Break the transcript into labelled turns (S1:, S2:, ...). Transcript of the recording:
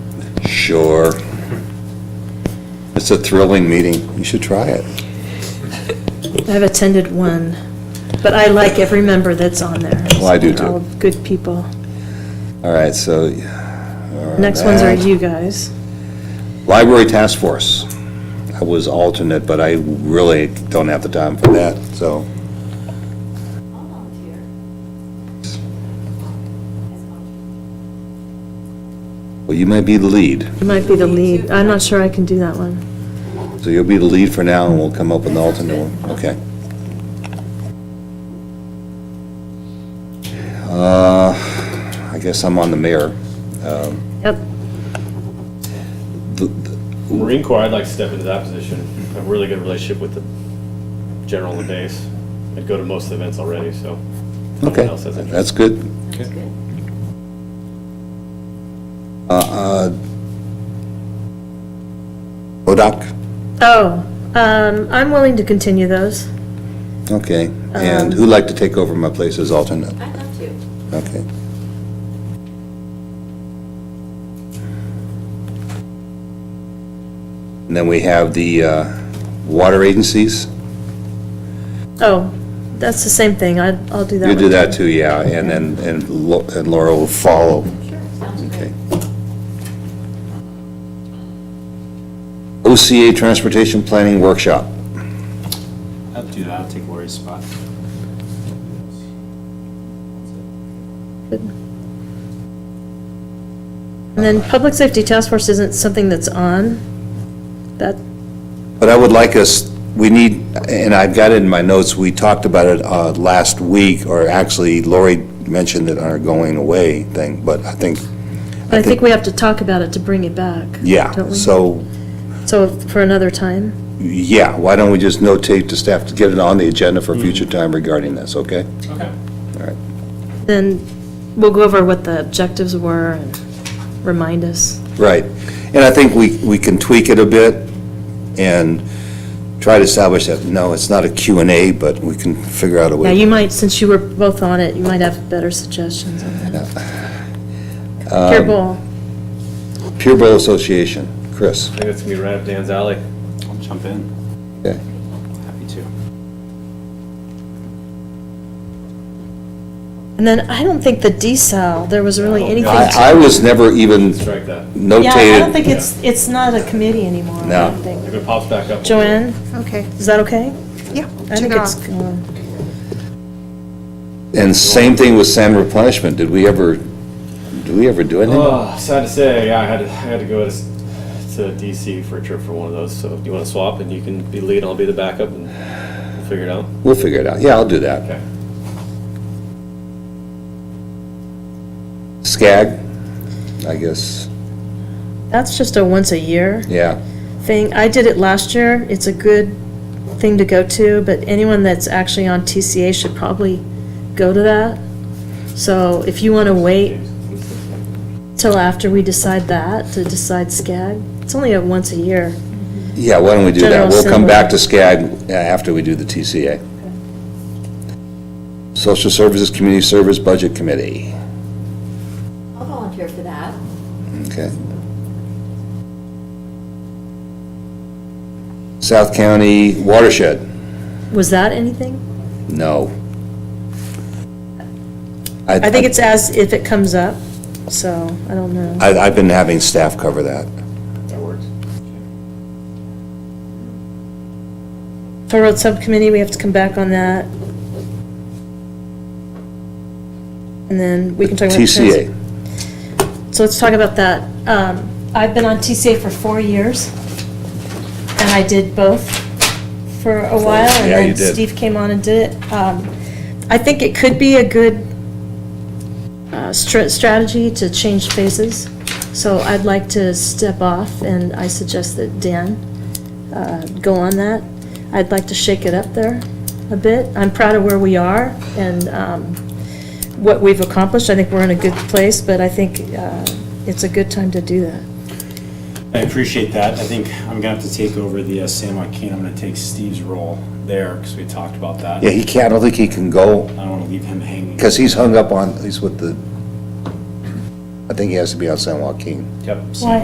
S1: Sure. It's a thrilling meeting. You should try it.
S2: I've attended one, but I like every member that's on there.
S1: Well, Oh, I do
S2: They're all
S1: too.
S2: Good people.
S1: All right, so. all
S2: Next ones are
S1: right.
S2: you guys.
S1: Library Task Force. I was alternate, but I really don't have the time for that, so.
S3: I'll volunteer. As volunteer.
S1: Well, you might be the lead.
S2: You might be the lead. I'm not sure I can do that one.
S1: So you'll be the lead for now, and we'll come up with an alternate one. Okay. Uh, I guess I'm on the mayor.
S2: Yep,
S1: The- the-
S4: Marine Corps, I'd like to step into that position. I have a really good relationship with the general and the base. I'd go to most of the events already, so. if someone
S1: Okay,
S4: else has interest.
S1: that's good.
S3: That's good.
S1: ODOC,
S2: Oh, um, I'm willing to continue those.
S1: okay. And who'd like to take over my place as alternate?
S3: I'd love to.
S1: Okay. And then we have the uh, water agencies.
S2: Oh, that's the same thing. I, I'll do that
S1: You
S2: one.
S1: do that too, yeah, and then, and Lo- and Laura will follow.
S3: Sure, sounds
S1: Okay.
S3: great.
S1: OCA Transportation Planning Workshop.
S5: I'll do that, I'll take Lori's spot.
S2: And then Public Safety Task Force isn't something that's on. That,
S1: But I would like us, we need, and I've got it in my notes, we talked about it uh, last week, or actually Lori mentioned it on our going away thing, but I think,
S2: but I think we have to talk about it to bring it back. don't
S1: yeah,
S2: we?
S1: so,
S2: So for another time?
S1: yeah, why don't we just notate to staff to get it on the agenda for future
S2: Mm-hmm.
S1: time regarding this, okay?
S5: Okay.
S1: All right.
S2: Then we'll go over what the objectives were and remind us.
S1: Right. And I think we, we can tweak it a bit and try to establish that, no, it's not a Q and A, but we can figure out a
S2: Yeah,
S1: way.
S2: you might, since you were both on it, you might have better suggestions on that.
S1: Um,
S2: Pure Bowl,
S1: Pure Bowl Association, Chris.
S4: I think that's gonna be right up Dan's alley.
S5: I'll jump in,
S1: Okay.
S5: happy to.
S2: And then I don't think the desal. there was really anything.
S1: Oh, I, I was never even
S4: Strike that.
S1: notated.
S2: Yeah, I don't think it's, it's not a committee anymore, I
S1: No.
S2: don't think.
S4: If it pops back up.
S2: Joanne,
S6: Okay,
S2: is that okay?
S6: yeah.
S2: I
S6: check
S2: think
S6: it
S2: it's
S6: off.
S2: gone.
S1: And same thing with sand replenishment, did we ever, do we ever do anything?
S4: Oh, sad to say, yeah, I had, to- I had to go to, s- to DC for a trip for one of those, so you wanna swap and you can be lead, I'll be the backup and we'll figure it out.
S1: We'll figure it out, yeah, I'll do that.
S4: Okay.
S1: SCAG, I guess,
S2: That's just a once a year
S1: yeah,
S2: thing. I did it last year, it's a good thing to go to, but anyone that's actually on TCA should probably go to that. So if you want to wait till after we decide that, to decide SCAG, it's only a once a year.
S1: yeah, why don't we do that?
S2: General
S1: We'll come
S2: Assembly.
S1: back to SCAG uh, after we do the TCA. Social Services Community Service Budget Committee,
S3: I'll volunteer for that.
S1: okay. South County Watershed,
S2: Was that anything?
S1: no.
S2: I think it's as if it comes up, so I don't know.
S1: I, I've been having staff cover that.
S4: That works.
S2: Toll Road Subcommittee, we have to come back on that. And then we can talk about.
S1: TCA.
S2: trans- So let's talk about that. Um, I've been on TCA for four years, and I did both for a while, and
S1: Yeah, you
S2: then
S1: did.
S2: Steve came on and did it. Um, I think it could be a good uh, stra- strategy to change faces, so I'd like to step off, and I suggest that Dan uh, go on that. I'd like to shake it up there a bit. I'm proud of where we are and um, what we've accomplished. I think we're in a good place, but I think uh, it's a good time to do that.
S5: I appreciate that. I think I'm gonna have to take over the uh, San Joaquin. I'm gonna take Steve's role there, because we talked about that.
S1: Yeah, he can't, I don't think he can go,
S5: I don't wanna leave him hanging.
S1: because he's hung up on, he's with the, I think he has to be on San Joaquin.
S5: Yep. San
S2: Why?